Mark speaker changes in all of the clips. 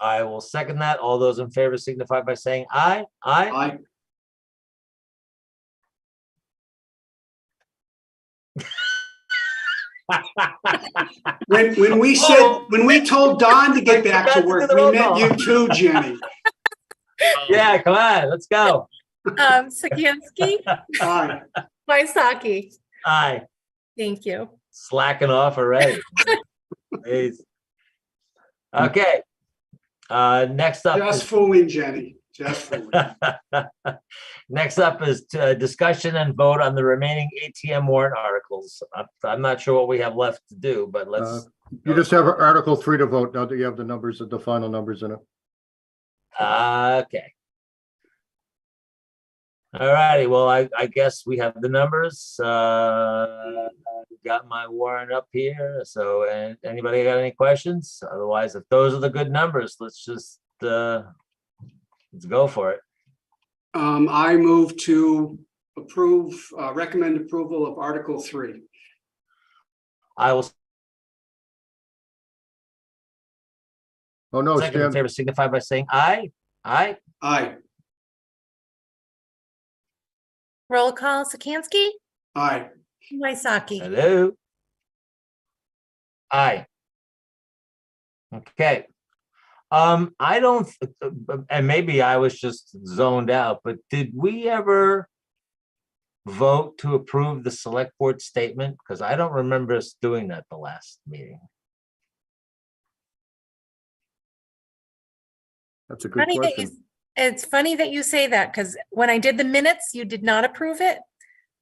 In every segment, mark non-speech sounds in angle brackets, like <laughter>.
Speaker 1: I will second that. All those in favor signify by saying aye. Aye.
Speaker 2: Aye.
Speaker 3: <laughs> When, when we said, when we told Don to get back
Speaker 1: Forgot to
Speaker 3: to
Speaker 1: do
Speaker 3: work,
Speaker 1: the
Speaker 3: we
Speaker 1: roll
Speaker 3: meant you
Speaker 1: call.
Speaker 3: too, Jenny.
Speaker 1: Yeah, come on, let's go.
Speaker 4: Um,
Speaker 5: <laughs>
Speaker 4: Sikansky,
Speaker 3: Aye.
Speaker 4: Waisaki,
Speaker 1: Aye,
Speaker 4: thank you.
Speaker 1: slacking off already. Jeez. Okay. Uh, next up. is-
Speaker 3: Just fooling, Jenny. Just fooling.
Speaker 1: Next up is uh, discussion and vote on the remaining ATM warrant articles. I'm, I'm not sure what we have left to do, but
Speaker 5: Uh,
Speaker 1: let's,
Speaker 5: You just have Article three to vote now that you have the numbers, the final numbers in it.
Speaker 1: uh, okay. All righty, well, I, I guess we have the numbers. Uh, I've Got my warrant up here, so uh, anybody got any questions? Otherwise, if those are the good numbers, let's just, uh, let's go for it.
Speaker 3: Um, I move to approve, uh, recommend approval of Article Three.
Speaker 1: I will
Speaker 5: Oh, no,
Speaker 1: second in
Speaker 5: Stan,
Speaker 1: favor signify by saying aye. Aye?
Speaker 3: Aye,
Speaker 4: Roll call, Sikansky,
Speaker 3: aye,
Speaker 4: Waisaki,
Speaker 1: Hello? Aye. Okay. Um, I don't, th- uh, and maybe I was just zoned out, but did we ever vote to approve the select board statement? Because I don't remember us doing that the last meeting.
Speaker 5: that's a good
Speaker 4: Funny that you,
Speaker 5: question.
Speaker 4: it's funny that you say that, because when I did the minutes, you did not approve it.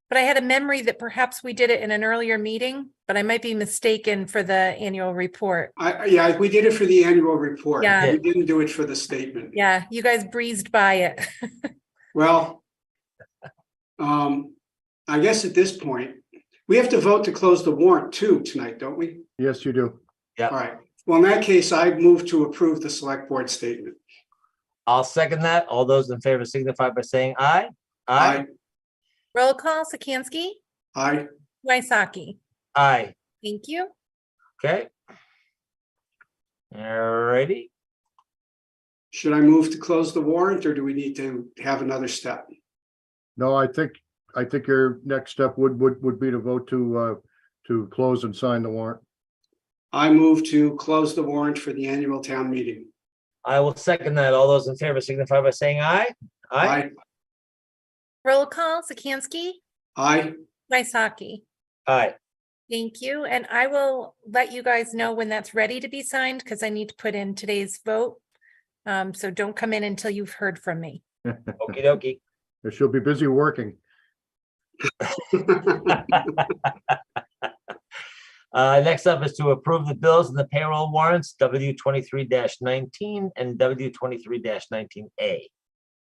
Speaker 4: But I had a memory that perhaps we did it in an earlier meeting, but I might be mistaken for the annual report.
Speaker 3: I- I, yeah, we did it for the annual report.
Speaker 4: Yeah.
Speaker 3: We didn't do it for the statement.
Speaker 4: Yeah, you guys breezed by it. <laughs>
Speaker 3: Well, um, I guess at this point, we have to vote to close the warrant too tonight, don't we?
Speaker 5: Yes, you do.
Speaker 3: All right. Well, in that case, I move to approve the select board statement.
Speaker 1: I'll second that. All those in favor signify by saying aye.
Speaker 4: Roll call, Sikansky,
Speaker 3: Aye,
Speaker 4: Waisaki,
Speaker 1: Aye.
Speaker 4: thank you.
Speaker 1: Okay. Alrighty.
Speaker 3: should I move to close the warrant or do we need to have another step?
Speaker 5: No, I think, I think your next step would, would, would be to vote to, uh, to close and sign the warrant.
Speaker 3: I move to close the warrant for the annual town meeting.
Speaker 1: I will second that. All those in favor signify by saying aye. Aye.
Speaker 4: Roll call, Sikansky,
Speaker 3: Aye,
Speaker 4: Waisaki,
Speaker 1: Aye.
Speaker 4: thank you. And I will let you guys know when that's ready to be signed, because I need to put in today's vote. Um, so don't come in until you've heard from me.
Speaker 1: Okey dokey.
Speaker 5: She'll be busy working.
Speaker 1: Uh, next up is to approve the bills and the payroll warrants, W twenty-three nineteen and W twenty-three nineteen A.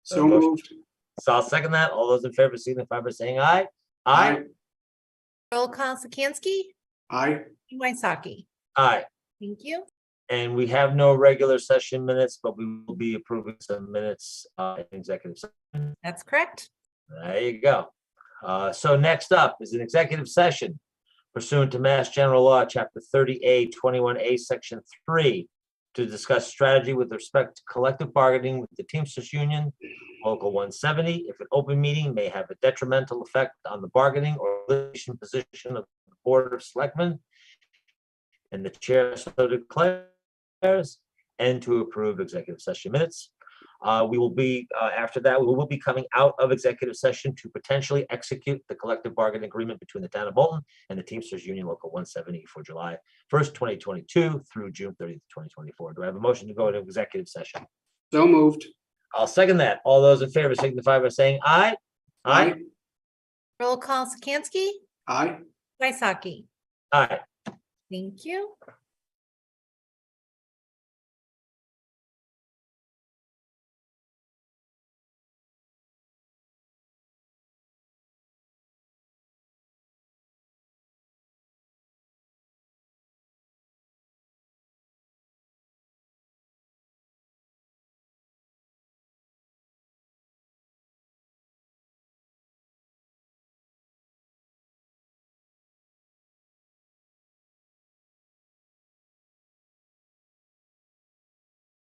Speaker 3: so moved.
Speaker 1: So I'll second that. All those in favor signify by saying aye. Aye.
Speaker 4: Roll call, Sikansky,
Speaker 3: Aye,
Speaker 4: Waisaki,
Speaker 1: Aye.
Speaker 4: thank you.
Speaker 1: And we have no regular session minutes, but we will be approving some minutes, uh, in executive. session.
Speaker 4: That's correct.
Speaker 1: There you go. Uh, so next up is an executive session pursuant to Mass General Law, Chapter thirty A, twenty-one A, Section three, to discuss strategy with respect to collective bargaining with the Teamsters Union, Local one seventy, if an open meeting may have a detrimental effect on the bargaining or litigation position of the Board of Selectmen, and the chair so declares, and to approve executive session minutes. Uh, we will be, uh, after that, we will be coming out of executive session to potentially execute the collective bargaining agreement between the town of Bolton and the Teamsters Union Local one seventy for July first, twenty twenty-two through June thirtieth, twenty twenty-four. Do I have a motion to go into executive session?
Speaker 3: so moved.
Speaker 1: I'll second that. All those in favor signify by saying aye. Aye.
Speaker 4: Roll call, Sikansky,
Speaker 3: Aye,
Speaker 4: Waisaki,
Speaker 1: Aye.
Speaker 4: thank you.